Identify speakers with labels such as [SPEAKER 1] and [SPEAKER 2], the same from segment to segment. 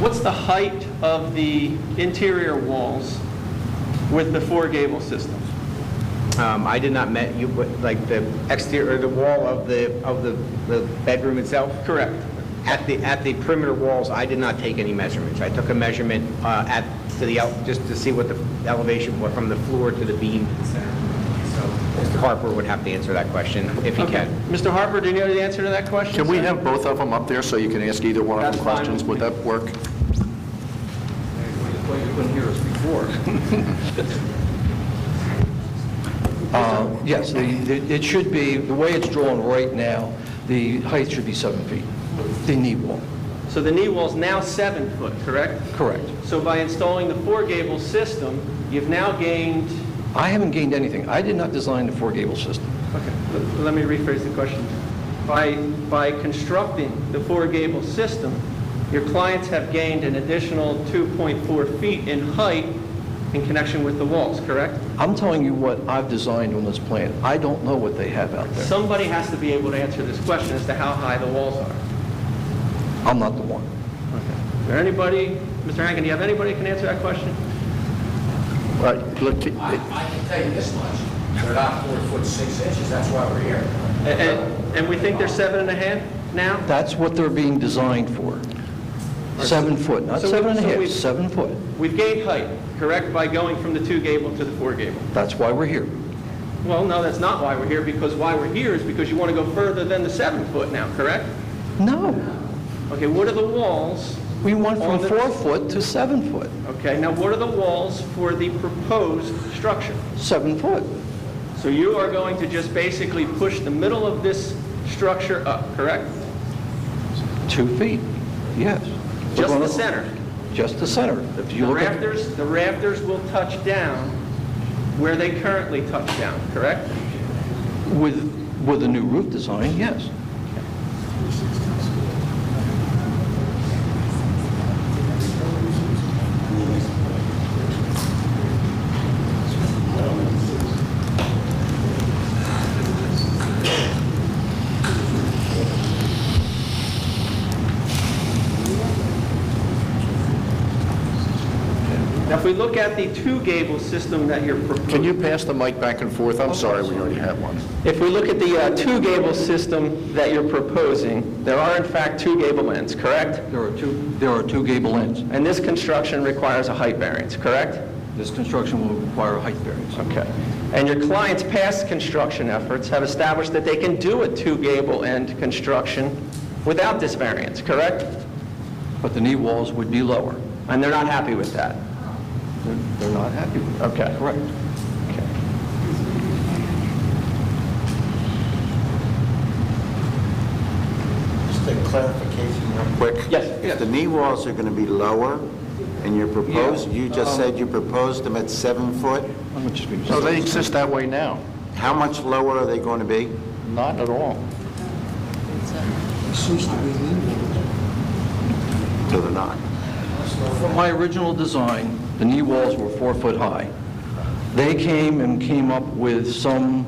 [SPEAKER 1] What's the height of the interior walls with the four gable system?
[SPEAKER 2] Um, I did not met you, but like the exterior, the wall of the, of the, the bedroom itself?
[SPEAKER 1] Correct.
[SPEAKER 2] At the, at the perimeter walls, I did not take any measurements. I took a measurement uh, at, to the, el- just to see what the elevation was from the floor to the beam to the center. So Mr. Harper would have to answer that question if he
[SPEAKER 1] Okay.
[SPEAKER 2] can.
[SPEAKER 1] Mr. Harper, do you know the answer to that question?
[SPEAKER 3] Can we
[SPEAKER 1] sir?
[SPEAKER 3] have both of them up there so you can ask either one of them
[SPEAKER 1] That's fine with
[SPEAKER 3] questions? Would
[SPEAKER 1] me.
[SPEAKER 3] that work?
[SPEAKER 4] Well, you couldn't hear us before.
[SPEAKER 5] Uh, Yes, the- the- it should be, the way it's drawn right now, the height should be seven feet, the knee wall,
[SPEAKER 1] So the knee wall's now seven foot, correct?
[SPEAKER 5] correct.
[SPEAKER 1] So by installing the four gable system, you've now gained,
[SPEAKER 5] I haven't gained anything. I did not design the four-gable system.
[SPEAKER 1] okay, l- let me rephrase the question. By, by constructing the four gable system, your clients have gained an additional 2.4 feet in height in connection with the walls, correct?
[SPEAKER 5] I'm telling you what I've designed on this plan. I don't know what they have out there.
[SPEAKER 1] Somebody has to be able to answer this question as to how high the walls are.
[SPEAKER 5] I'm not the one.
[SPEAKER 1] Is there anybody, Mr. Hankin, do you have anybody that can answer that question?
[SPEAKER 3] Uh, look, it-
[SPEAKER 6] I I can tell you this much, they're not four foot six inches, that's why we're here.
[SPEAKER 1] A- And, and we think they're seven and a half now?
[SPEAKER 5] That's what they're being designed for. Seven foot, not
[SPEAKER 1] So we-
[SPEAKER 5] seven and a
[SPEAKER 1] so
[SPEAKER 5] half,
[SPEAKER 1] we-
[SPEAKER 5] seven foot.
[SPEAKER 1] We've gained height, correct, by going from the two gable to the four gable?
[SPEAKER 5] That's why we're here.
[SPEAKER 1] Well, no, that's not why we're here, because why we're here is because you want to go further than the seven foot now, correct?
[SPEAKER 5] No,
[SPEAKER 1] Okay, what are the walls,
[SPEAKER 5] we went
[SPEAKER 1] On
[SPEAKER 5] from
[SPEAKER 1] the-
[SPEAKER 5] four foot to seven foot,
[SPEAKER 1] okay, now what are the walls for the proposed structure?
[SPEAKER 5] seven foot.
[SPEAKER 1] So you are going to just basically push the middle of this structure up, correct?
[SPEAKER 5] Two feet, yes. We're
[SPEAKER 1] Just
[SPEAKER 5] gonna-
[SPEAKER 1] the center?
[SPEAKER 5] Just the center. If
[SPEAKER 1] The
[SPEAKER 5] you look at,
[SPEAKER 1] rafters, the rafters will touch down where they currently touch down, correct?
[SPEAKER 5] with, with a new roof design, yes.
[SPEAKER 1] Now, if we look at the two gable system that you're proposing...
[SPEAKER 3] can you pass the mic back and forth? I'm sorry, we already had one.
[SPEAKER 1] If we look at the uh, two gable system that you're proposing, there are in fact two gable ends, correct?
[SPEAKER 5] There are two, there are two gable ends.
[SPEAKER 1] And this construction requires a height variance, correct?
[SPEAKER 5] This construction will require a height variance.
[SPEAKER 1] Okay. And your client's past construction efforts have established that they can do a two gable end construction without this variance, correct?
[SPEAKER 5] But the knee walls would be lower.
[SPEAKER 1] And they're not happy with that.
[SPEAKER 5] They're they're not happy with that.
[SPEAKER 1] Okay.
[SPEAKER 5] Correct.
[SPEAKER 7] Just a clarification real quick.
[SPEAKER 1] Yes, yes.
[SPEAKER 7] If the knee walls are going to be lower, and you're proposed, you just said you proposed them at seven foot,
[SPEAKER 5] I'm just being-
[SPEAKER 3] So they exist that way now?
[SPEAKER 7] how much lower are they going to be?
[SPEAKER 3] Not at all.
[SPEAKER 7] No, they're not.
[SPEAKER 5] From my original design, the knee walls were four foot high. They came and came up with some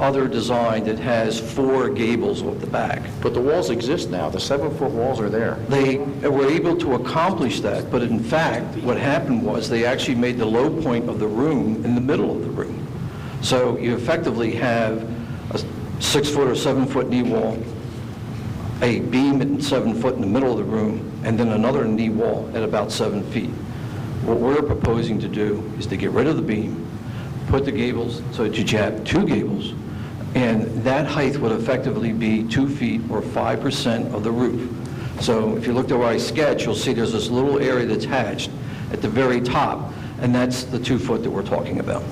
[SPEAKER 5] other design that has four gables off the back.
[SPEAKER 3] But the walls exist now. The seven-foot walls are there.
[SPEAKER 5] They were able to accomplish that, but in fact, what happened was, they actually made the low point of the room in the middle of the room. So you effectively have a six-foot or seven-foot knee wall, a beam at seven foot in the middle of the room, and then another knee wall at about seven feet. What we're proposing to do is to get rid of the beam, put the gables, so that you have two gables, and that height would effectively be two feet or 5% of the roof. So if you looked at where I sketch, you'll see there's this little area that's hatched at the very top, and that's the two foot that we're talking about.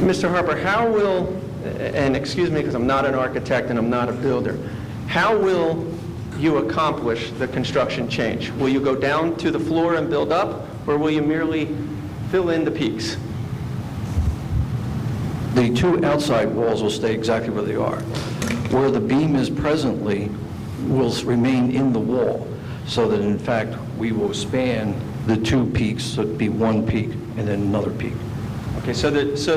[SPEAKER 1] Mr. Harper, how will, and excuse me because I'm not an architect and I'm not a builder, how will you accomplish the construction change? Will you go down to the floor and build up, or will you merely fill in the peaks?
[SPEAKER 5] The two outside walls will stay exactly where they are. Where the beam is presently will s- remain in the wall, so that in fact, we will span the two peaks, so it'd be one peak and then another peak.
[SPEAKER 1] Okay, so the, so